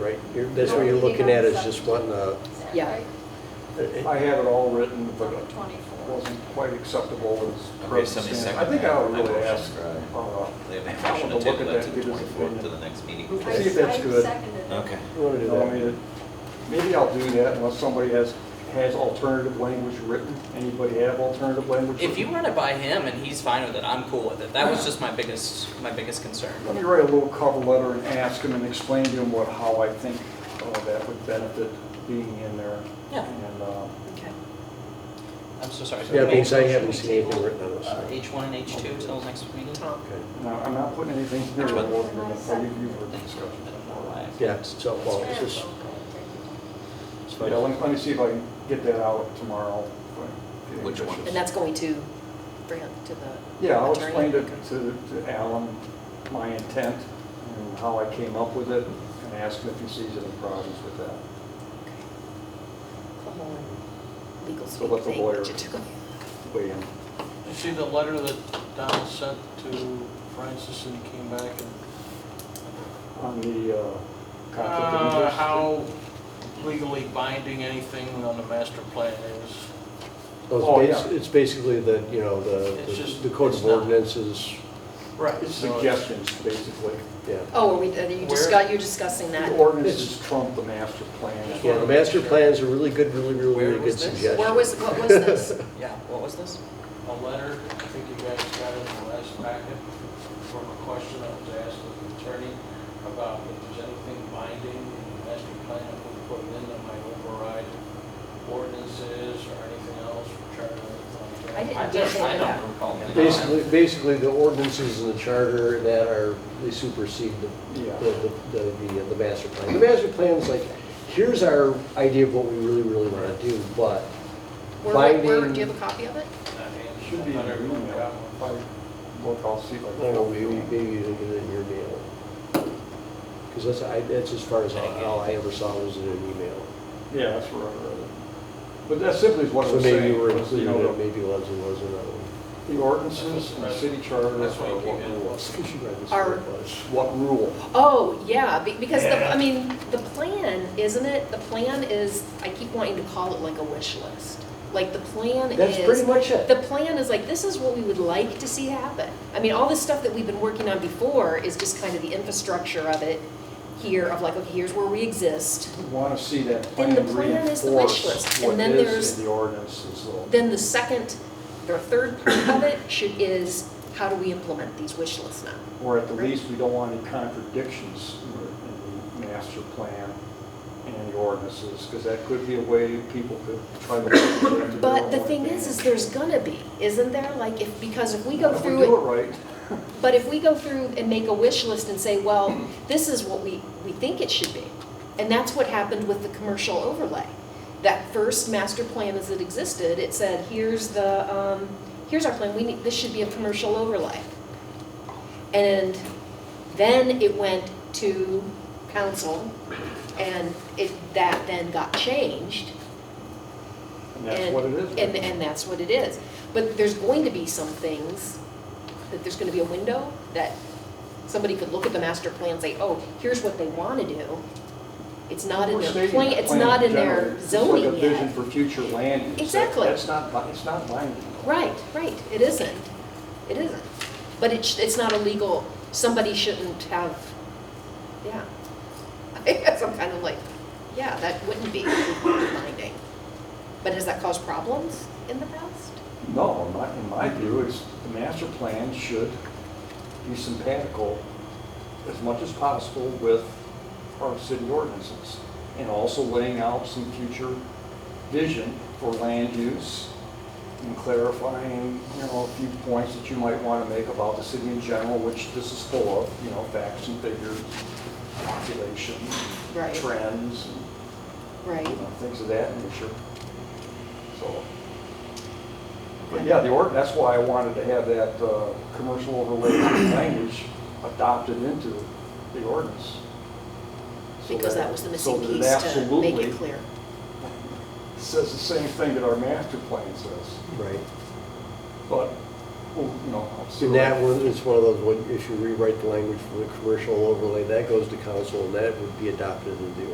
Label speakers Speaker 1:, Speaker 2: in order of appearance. Speaker 1: Right, you're, that's what you're looking at, is just uh, eh, wanting a,
Speaker 2: Yeah.
Speaker 3: I had it all written, but it
Speaker 2: Twenty-four.
Speaker 3: wasn't quite acceptable as
Speaker 4: Okay,
Speaker 3: present
Speaker 4: somebody
Speaker 3: standard.
Speaker 4: second.
Speaker 3: I think I would
Speaker 4: that
Speaker 3: really
Speaker 4: motion.
Speaker 3: ask, uh,
Speaker 4: They have a
Speaker 3: I
Speaker 4: motion
Speaker 3: wanna
Speaker 4: to
Speaker 3: look
Speaker 4: table
Speaker 3: at that
Speaker 4: that to
Speaker 3: and
Speaker 4: the
Speaker 3: get his
Speaker 4: 24th, to
Speaker 3: opinion.
Speaker 4: the next meeting.
Speaker 2: I-
Speaker 3: See if that's
Speaker 2: I
Speaker 3: good.
Speaker 2: seconded it.
Speaker 4: Okay.
Speaker 1: you wanna do
Speaker 3: you know, I mean,
Speaker 1: that?
Speaker 3: it- maybe I'll do that unless somebody has, has alternative language written. Anybody have alternative language?
Speaker 5: If you
Speaker 3: written?
Speaker 5: run it by him and he's fine with it, I'm cool with it. That was just my biggest, my biggest concern.
Speaker 3: Let me write a little cover letter and ask him and explain to him what, how I think uh, that would benefit being in there.
Speaker 5: Yeah.
Speaker 3: And, uh,
Speaker 5: Okay. I'm so sorry.
Speaker 1: Yeah, because I
Speaker 5: Motion
Speaker 1: haven't
Speaker 5: to
Speaker 1: seen anything
Speaker 5: table,
Speaker 1: written on this.
Speaker 5: uh, H1 and H2 till next meeting?
Speaker 1: Okay.
Speaker 3: and I- I'm not putting anything here
Speaker 5: Which
Speaker 3: or
Speaker 5: one?
Speaker 3: ordering it, but you- you've heard the
Speaker 5: I
Speaker 3: discussion.
Speaker 5: don't know why.
Speaker 1: Yeah, it's all, well, it's just, it's
Speaker 3: Yeah, let
Speaker 1: fine.
Speaker 3: me, let me see if I can get that out tomorrow.
Speaker 4: Which one?
Speaker 6: And that's going to bring it to the attorney?
Speaker 3: Yeah, I'll explain to, to to Alan my intent and how I came up with it and ask him if he sees any problems with that.
Speaker 6: Okay. The whole legal
Speaker 3: So
Speaker 6: speak
Speaker 3: let the
Speaker 6: thing
Speaker 3: lawyer-
Speaker 6: that you took.
Speaker 3: Weigh in.
Speaker 7: You see the letter that Donald sent to Francis and he came back and,
Speaker 3: On the uh, conflict of
Speaker 7: uh,
Speaker 3: interest.
Speaker 7: how legally binding anything on the master plan is.
Speaker 3: Oh,
Speaker 1: Well, it's bas-
Speaker 3: yeah.
Speaker 1: It's basically the, you know, the,
Speaker 7: It's just-
Speaker 1: the code
Speaker 7: it's
Speaker 1: of
Speaker 7: not-
Speaker 1: ordinances,
Speaker 7: Right.
Speaker 3: It's suggestions, basically.
Speaker 1: yeah.
Speaker 6: Oh, are we, are you
Speaker 7: Where-
Speaker 6: discuss, you're discussing that?
Speaker 3: The ordinances trump the master plan.
Speaker 1: Yeah, the master plan's a really good, really, really,
Speaker 5: Where
Speaker 1: really good
Speaker 5: was this?
Speaker 1: suggestion.
Speaker 6: Where was, what was this?
Speaker 5: Yeah, what was this?
Speaker 7: A letter, I think you guys got it in the last packet, from a question that was asked of the attorney about if there's anything binding in the master plan that we put in that might override ordinances or anything else, charter, anything like that.
Speaker 6: I didn't
Speaker 4: I
Speaker 6: get
Speaker 4: just, I
Speaker 6: that.
Speaker 4: don't recall. any of that.
Speaker 1: Basically, basically, the ordinances in the charter that are, they supersede the,
Speaker 3: Yeah.
Speaker 1: the, the, the- the master plan. The master plan's like, here's our idea of what we really, really wanna do, but
Speaker 6: Where, where, where-
Speaker 1: Binding.
Speaker 6: do you have a copy of it?
Speaker 7: I mean,
Speaker 3: It Should be in
Speaker 7: not
Speaker 3: your
Speaker 7: everyone got
Speaker 3: email.
Speaker 7: one.
Speaker 3: If I Look, I'll see if I
Speaker 1: I don't
Speaker 3: can.
Speaker 1: know, maybe, maybe you didn't get it in your mail. Because that's, I, that's as far as all, all I ever saw was in an email.
Speaker 3: Yeah, that's where I read it. But that simply is what I
Speaker 1: So
Speaker 3: was
Speaker 1: maybe you
Speaker 3: saying.
Speaker 1: were
Speaker 3: was, you
Speaker 1: included,
Speaker 3: know,
Speaker 1: in
Speaker 3: the-
Speaker 1: it, maybe Leslie wasn't, I don't
Speaker 3: The ordinances and the city charter
Speaker 7: That's
Speaker 3: are
Speaker 7: why you
Speaker 3: what
Speaker 7: came in.
Speaker 3: rule.
Speaker 1: know. She read this
Speaker 6: Our-
Speaker 1: where it was.
Speaker 3: What rule?
Speaker 6: Oh, yeah, be- because the, I mean, the plan, isn't it, the plan is, I keep wanting to call it like a wish list. Like, the plan is.
Speaker 1: That's pretty much it.
Speaker 6: The plan is like, this is what we would like to see happen. I mean, all this stuff that we've been working on before is just kind of the infrastructure of it here, of like, okay, here's where we exist.
Speaker 3: We want to see that
Speaker 6: Then
Speaker 3: plan
Speaker 6: the plan is the wish
Speaker 3: reinforce
Speaker 6: list, and
Speaker 3: what
Speaker 6: then
Speaker 3: is
Speaker 6: there's-
Speaker 3: in the ordinances. though.
Speaker 6: Then the second, or third part of it should, is how do we implement these wish lists now?
Speaker 3: Or at the least, we don't want any contradictions in the master plan and the ordinances, because that could be a way people could try to.
Speaker 6: But the thing is, is there's gonna be, isn't there? Like, if, because if we go
Speaker 3: If
Speaker 6: through it.
Speaker 3: do it right,
Speaker 6: But if we go through and make a wish list and say, well, this is what we, we think it should be, and that's what happened with the commercial overlay. That first master plan as it existed, it said, here's the, um, here's our plan, we need, this should be a commercial overlay. And then it went to council, and it, that then got changed.
Speaker 3: and that's
Speaker 6: And-
Speaker 3: what it is.
Speaker 6: And, and that's what it is. But there's going to be some things, that there's gonna be a window that somebody could look at the master plan and say, oh, here's what they wanna do. It's not in
Speaker 3: We're
Speaker 6: their
Speaker 3: stating
Speaker 6: plan,
Speaker 3: the
Speaker 6: it's not in
Speaker 3: generally.
Speaker 6: their
Speaker 3: It's like
Speaker 6: zoning
Speaker 3: a vision
Speaker 6: yet.
Speaker 3: for future land use. That-
Speaker 6: Exactly.
Speaker 3: That's not, bi- it's not binding.
Speaker 6: Right, right, it isn't. It isn't. But it's, it's not illegal, somebody shouldn't have, yeah. I guess I'm kind of like, yeah, that wouldn't be binding. But has that caused problems in the past?
Speaker 3: No, in my, in my view, it's, the master plan should be sympatical as much as possible with our city ordinances, and also laying out some future vision for land use, and clarifying, you know, a few points that you might want to make about the city in general, which this is full of, you know, facts and figures, population,
Speaker 6: Right.
Speaker 3: trends, and
Speaker 6: Right.
Speaker 3: you know, Uh, things of that nature. So, but yeah, the ord, that's why I wanted to have that uh, commercial overlay language adopted into the ordinance. So
Speaker 6: Because that was the
Speaker 3: so
Speaker 6: missing
Speaker 3: that it
Speaker 6: piece to make
Speaker 3: absolutely
Speaker 6: it clear.
Speaker 3: Says the same thing that our master plan says,
Speaker 1: Right.
Speaker 3: but well, you know, I'll see.
Speaker 1: And
Speaker 3: what-
Speaker 1: that one, it's one of those, when- if you rewrite the language from the commercial overlay, that goes to council, and that would be adopted into the